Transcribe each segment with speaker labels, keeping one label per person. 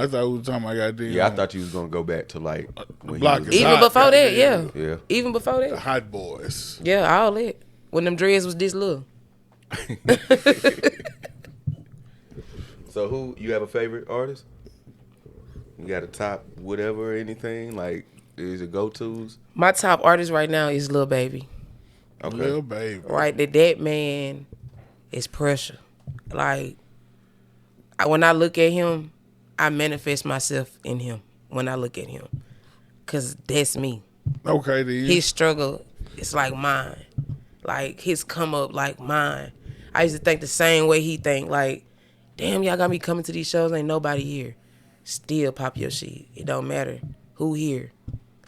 Speaker 1: I thought we were talking about goddamn.
Speaker 2: Yeah, I thought you was gonna go back to like when he
Speaker 1: Block
Speaker 2: was-
Speaker 1: is
Speaker 2: yeah.
Speaker 1: up.
Speaker 2: yeah.
Speaker 1: Nah,
Speaker 3: Even before that, yeah.
Speaker 1: goddamn.
Speaker 2: Yeah.
Speaker 3: Even before that,
Speaker 1: Hot boys.
Speaker 3: yeah, all that. When them dreads was this little.
Speaker 2: So who you have a favorite artist? You got a top whatever or anything like is it go tos?
Speaker 3: My top artist right now is Lil Baby.
Speaker 2: Okay.
Speaker 1: Little baby.
Speaker 3: Right, that that man is pressure. Like I, when I look at him, I manifest myself in him when I look at him, cause that's me.
Speaker 1: Okay, then.
Speaker 3: his struggle is like mine like his come up like mine i used to think the same way he think like damn y'all got me coming to these shows ain't nobody here still pop your shit it don't matter who here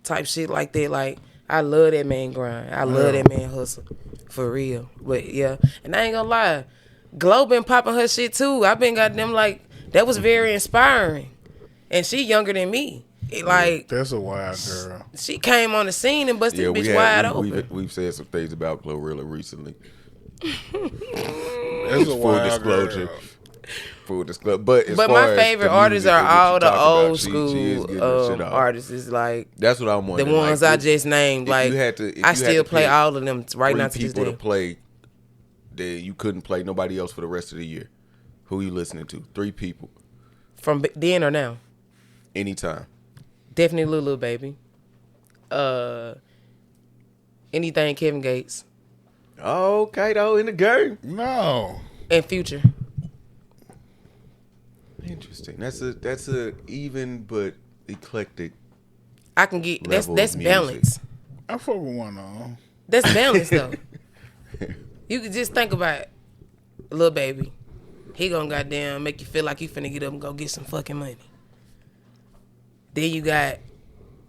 Speaker 3: type shit like that like i love that man grind i love that man hustle for real but yeah and i ain't gonna lie glow been popping her shit too i've been got them like that was very inspiring and she younger than me it, like
Speaker 1: That's a wild girl.
Speaker 3: she came on the scene and busted
Speaker 2: Yeah,
Speaker 3: the
Speaker 2: we
Speaker 3: bitch
Speaker 2: had,
Speaker 3: wide
Speaker 2: we,
Speaker 3: open.
Speaker 2: We've, we've said some things about Glorilla recently.
Speaker 1: That's a
Speaker 2: Full
Speaker 1: wild
Speaker 2: disclosure.
Speaker 1: girl.
Speaker 2: Full disclosure, but as
Speaker 3: but
Speaker 2: far
Speaker 3: my
Speaker 2: as
Speaker 3: favorite
Speaker 2: the
Speaker 3: artists
Speaker 2: music
Speaker 3: are
Speaker 2: and what
Speaker 3: all
Speaker 2: you
Speaker 3: the
Speaker 2: talk about,
Speaker 3: old
Speaker 2: she- she is
Speaker 3: school
Speaker 2: getting her
Speaker 3: um,
Speaker 2: shit off.
Speaker 3: artists. Is like
Speaker 2: That's what I'm
Speaker 3: the
Speaker 2: wondering.
Speaker 3: ones
Speaker 2: like,
Speaker 3: I
Speaker 2: if-
Speaker 3: just named.
Speaker 2: if
Speaker 3: Like
Speaker 2: you had to- if you
Speaker 3: I
Speaker 2: had
Speaker 3: still
Speaker 2: to
Speaker 3: play
Speaker 2: pick
Speaker 3: all of them right
Speaker 2: three
Speaker 3: now to this
Speaker 2: people
Speaker 3: day.
Speaker 2: to play that you couldn't play nobody else for the rest of the year. Who you listening to? Three people
Speaker 3: From b- then or now,
Speaker 2: anytime.
Speaker 3: definitely Lulu baby. Uh, anything Kevin Gates
Speaker 2: Okay, though in the game.
Speaker 1: No.
Speaker 3: and Future.
Speaker 2: Interesting. That's a that's a even but eclectic.
Speaker 3: I can get that's
Speaker 2: Level of
Speaker 3: that's
Speaker 2: music.
Speaker 3: balance.
Speaker 1: I fuck with one of them.
Speaker 3: That's balance though. you could just think about little baby. He gonna goddamn make you feel like you finna get up and go get some fucking money. Then you got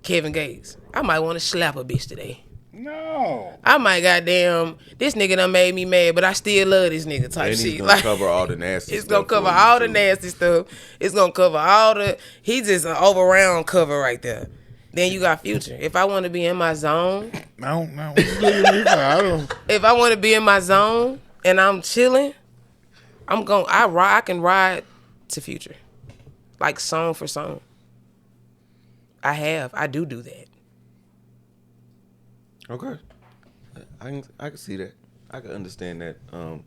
Speaker 3: Kevin Gates. I might want to slap a bitch today.
Speaker 1: No.
Speaker 3: I might goddamn this nigga done made me mad, but I still love this nigga type
Speaker 2: And he's
Speaker 3: shit.
Speaker 2: gonna
Speaker 3: Like
Speaker 2: cover all the nasty.
Speaker 3: it's gonna
Speaker 2: stuff for
Speaker 3: cover
Speaker 2: you,
Speaker 3: all the
Speaker 2: too.
Speaker 3: nasty stuff. It's gonna cover all the. He just an overround cover right there. Then you got Future. If I want to be in my zone,
Speaker 1: No, no. What you looking at me for? I don't.
Speaker 3: if I want to be in my zone and I'm chilling, I'm going. I ride. I can ride to Future, like song for song. I have. I do do that.
Speaker 2: Okay. I can I can see that. I can understand that. Um,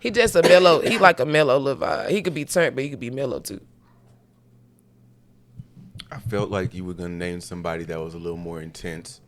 Speaker 3: He just a mellow. He like a mellow little vibe. He could be turned, but he could be mellow too.
Speaker 2: I felt like you were gonna name somebody that was a little more intense.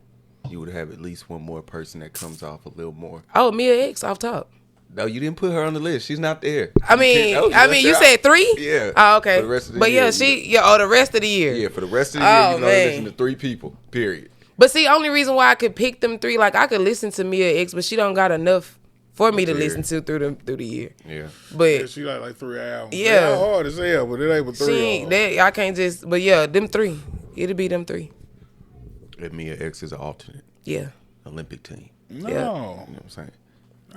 Speaker 2: You would have at least one more person that comes off a little more.
Speaker 3: Oh, Mia X off top.
Speaker 2: No, you didn't put her on the list. She's not there.
Speaker 3: I mean,
Speaker 2: That was
Speaker 3: I
Speaker 2: left
Speaker 3: mean, you
Speaker 2: out.
Speaker 3: said three.
Speaker 2: Yeah.
Speaker 3: Oh, okay.
Speaker 2: For the rest of the
Speaker 3: but
Speaker 2: year,
Speaker 3: yeah,
Speaker 2: you
Speaker 3: she. Yeah. Oh, the rest of the year.
Speaker 2: Yeah, for the rest of the
Speaker 3: Oh,
Speaker 2: year, you can only
Speaker 3: man.
Speaker 2: listen to three people. Period.
Speaker 3: But see, only reason why I could pick them three, like I could listen to Mia X, but she don't got enough for me to
Speaker 2: Yeah.
Speaker 3: listen to through the through the year.
Speaker 2: Yeah.
Speaker 3: But
Speaker 1: Yeah, she like like three albums.
Speaker 3: Yeah.
Speaker 1: Yeah, hard as hell, but it ain't but
Speaker 3: She
Speaker 1: three.
Speaker 3: ain't
Speaker 1: of 'em.
Speaker 3: that I can't just but yeah, them three. It'll be them three.
Speaker 2: And Mia X is an alternate
Speaker 3: Yeah.
Speaker 2: Olympic team. You
Speaker 1: no.
Speaker 2: know what I'm saying?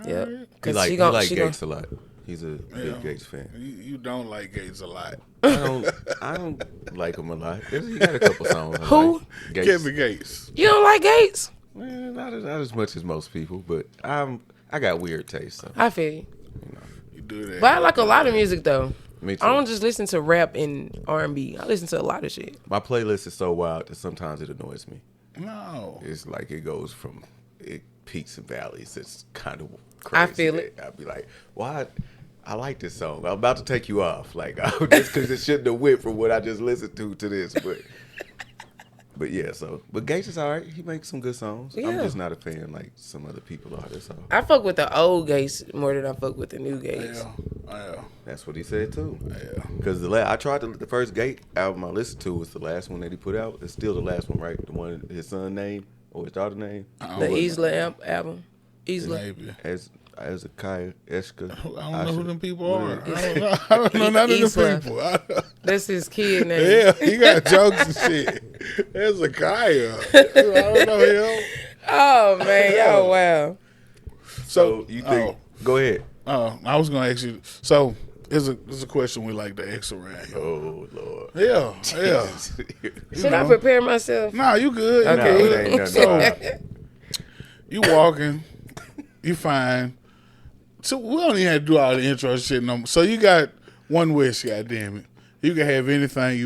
Speaker 3: Yeah.
Speaker 1: Alright.
Speaker 2: He
Speaker 3: Cause
Speaker 2: like,
Speaker 3: she
Speaker 2: he
Speaker 3: gon-
Speaker 2: like
Speaker 3: she gon-
Speaker 2: Gates a lot. He's a
Speaker 1: Yeah.
Speaker 2: big Gates fan.
Speaker 1: You, you don't like Gates a lot.
Speaker 2: I don't, I don't like him a lot. He got a couple songs. I
Speaker 3: Who?
Speaker 2: like. Gates.
Speaker 1: Kevin Gates.
Speaker 3: You don't like Gates?
Speaker 2: Eh, not, as, not as much as most people, but I'm I got weird taste. So.
Speaker 3: I feel you.
Speaker 1: You do that.
Speaker 3: But I like a lot of music though.
Speaker 2: Me too.
Speaker 3: I don't just listen to rap and R and B. I listen to a lot of shit.
Speaker 2: My playlist is so wild that sometimes it annoys me.
Speaker 1: No.
Speaker 2: It's like it goes from it peaks and valleys. It's kind of crazy.
Speaker 3: feel it.
Speaker 2: I'd be like, why? I like this song. I'm about to take you off, like just because it shouldn't have went from what I just listened to to this, but. But yeah, so but Gates is all right. He makes some good songs. I'm
Speaker 3: Yeah.
Speaker 2: just not a fan like some other people are. That's all.
Speaker 3: I fuck with the old Gates more than I fuck with the new Gates.
Speaker 1: Yeah. Yeah.
Speaker 2: That's what he said too.
Speaker 1: Yeah.
Speaker 2: Because the la- I tried to, the first Gate album I listened to was the last one that he put out. It's still the last one, right? The one his son name or his daughter name.
Speaker 1: I
Speaker 3: The
Speaker 1: don't know.
Speaker 3: Isla am- album. Isla.
Speaker 1: Maybe.
Speaker 2: As as a Kaya Eshka.
Speaker 1: I don't know who
Speaker 2: Asha.
Speaker 1: them people are. I don't know. I don't know
Speaker 3: He's-
Speaker 1: none of
Speaker 3: he's
Speaker 1: them
Speaker 3: left.
Speaker 1: people. I don't-
Speaker 3: That's his kid name.
Speaker 1: Yeah, he got jokes and shit. There's a Kaya. I don't know him.
Speaker 3: Oh man, y'all wow.
Speaker 2: So you think? Go ahead.
Speaker 1: Oh, oh, I was gonna ask you. So, is a is a question we like to ask around here.
Speaker 2: Oh Lord.
Speaker 1: Yeah, yeah.
Speaker 3: Should I
Speaker 1: know.
Speaker 3: prepare myself?
Speaker 1: Nah, you good. You
Speaker 2: Nah,
Speaker 3: Okay.
Speaker 2: it
Speaker 1: good.
Speaker 2: ain't nothing.
Speaker 1: So-
Speaker 2: wild.
Speaker 1: You walking, you fine. So we don't even have to do all the intro shit no more. So you got one wish, goddamn it. You can have anything you